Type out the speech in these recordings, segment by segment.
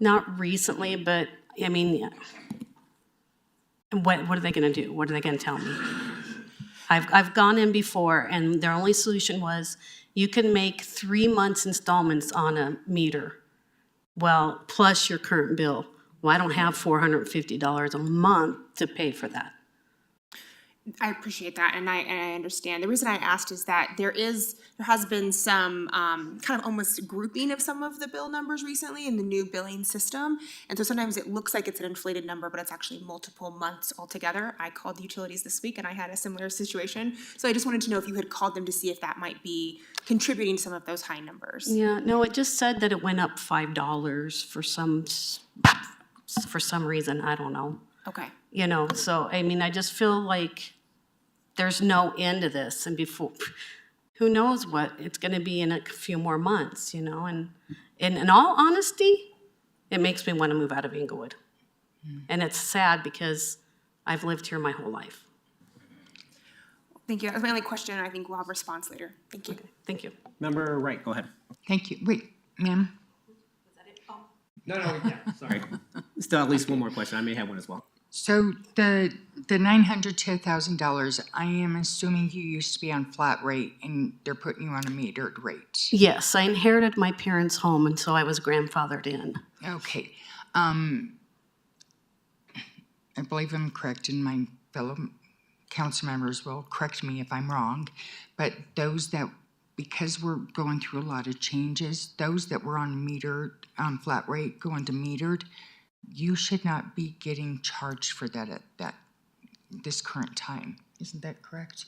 Not recently, but, I mean, yeah. And what, what are they gonna do? What are they gonna tell me? I've, I've gone in before, and their only solution was, you can make three months installments on a meter. Well, plus your current bill. Well, I don't have four hundred and fifty dollars a month to pay for that. I appreciate that, and I and I understand. The reason I asked is that there is there has been some um, kind of almost grouping of some of the bill numbers recently in the new billing system, and so sometimes it looks like it's an inflated number, but it's actually multiple months altogether. I called utilities this week, and I had a similar situation, so I just wanted to know if you had called them to see if that might be contributing to some of those high numbers. Yeah, no, it just said that it went up five dollars for some, s- for some reason, I don't know. Okay, You know, so, I mean, I just feel like there's no end to this, and before, who knows what it's gonna be in a few more months, you know, and, and in all honesty, it makes me wanna move out of Inglewood. Hmm. And it's sad because I've lived here my whole life. thank you. That was my only question, and I think we'll have a response later. Thank you. Thank you. Member Wright, go ahead. Thank you. Wait, ma'am? No, no, yeah, sorry. Still at least one more question. I may have one as well. So the, the nine hundred to thousand dollars, I am assuming you used to be on flat rate and they're putting you on a metered rate. Yes, I inherited my parents' home, and so I was grandfathered in. Okay. Um, I believe I'm correct and my fellow council members will correct me if I'm wrong. But those that, because we're going through a lot of changes, those that were on metered, um, flat rate going to metered, you should not be getting charged for that at that, this current time. Isn't that correct?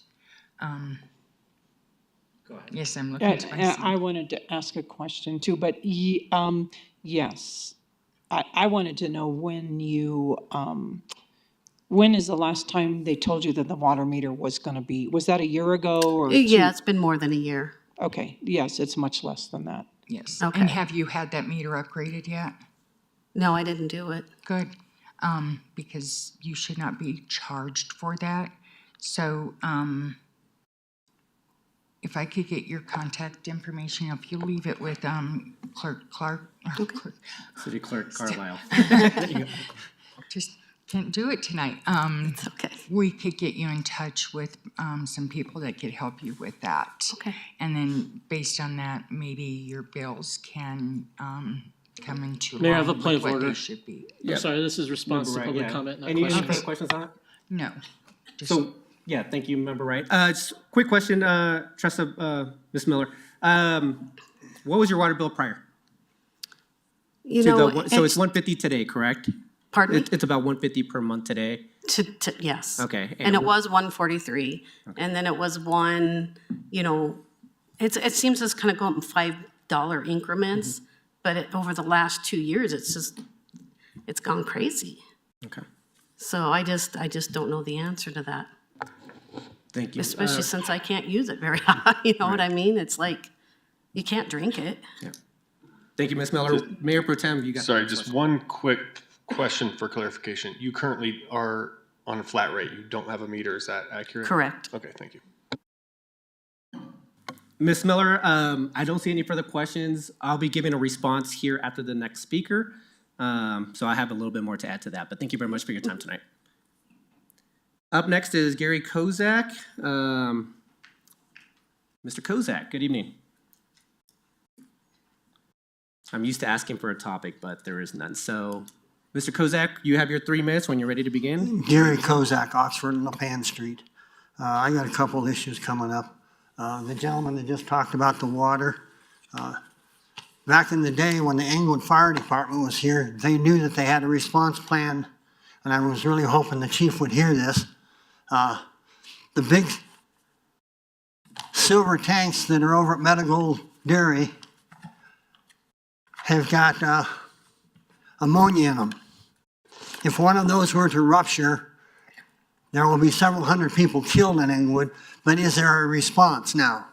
Go ahead. Yes, I'm looking to I- myself. I I wanted to ask a question too, but ye- um, yes. I, I wanted to know when you, um, when is the last time they told you that the water meter was gonna be, was that a year ago Oh, or? two- Yeah, it's been more than a year. Okay, yes, it's much less than that. Yes. Okay. And have you had that meter upgraded yet? No, I didn't do it. Good, um, because you should not be charged for that. So, um, if I could get your contact information, if you leave it with, um, Clerk Clark, or Clerk, City Clerk Carlisle. just can't do it tonight. Um, It's okay. we could get you in touch with, um, some people that could help you with that. Okay. And then based on that, maybe your bills can, um, come into Mayor, I have line a with point of what they order. should be. I'm sorry, this is response to Right, public yeah. comment, not Any any questions. further questions on it? No. So, yeah, thank you, Member Wright. Uh, just quick question, uh, Tressa, uh, Ms. Miller. Um, what was your water bill prior? You to the know, one- So it's one fifty today, correct? pardon me? It, it's about one fifty per month today. To, to, yes. Okay, And and it was one forty-three, and then it was one, you know, it's, it seems it's kind of going up in five dollar increments, but it, over the last two years, it's just, it's gone crazy. Okay, So I just, I just don't know the answer to that, thank you. Uh, especially since I can't use it very high, you know what I mean? It's like, you can't drink it. Thank you, Ms. Miller. Mayor Pro Tem, you got. Sorry, just one quick question for clarification. You currently are on a flat rate. You don't have a meter. Is that accurate? Correct. Okay, thank you. Ms. Miller, um, I don't see any further questions. I'll be giving a response here after the next speaker. Um, so I have a little bit more to add to that, but thank you very much for your time tonight. Up next is Gary Kozak. Um, Mr. Kozak, good evening. I'm used to asking for a topic, but there is none. So, Mr. Kozak, you have your three minutes when you're ready to begin. Gary Kozak, Oxford and LaPan Street. Uh, I got a couple of issues coming up. Uh, The gentleman that just talked about the water, uh, back in the day when the Englewood Fire Department was here, they knew that they had a response plan, and I was really hoping the chief would hear this. Uh, The big silver tanks that are over at Medical Dairy have got uh, ammonia in them. If one of those were to rupture, there will be several hundred people killed in Englewood, but is there a response now?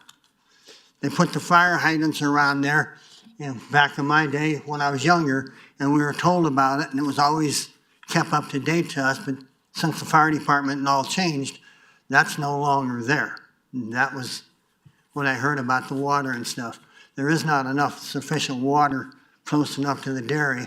They put the fire hydrants around there, and back in my day, when I was younger, and we were told about it, and it was always kept up to date to us, but since the fire department and all changed, that's no longer there. And that was what I heard about the water and stuff. There is not enough sufficient water close enough to the dairy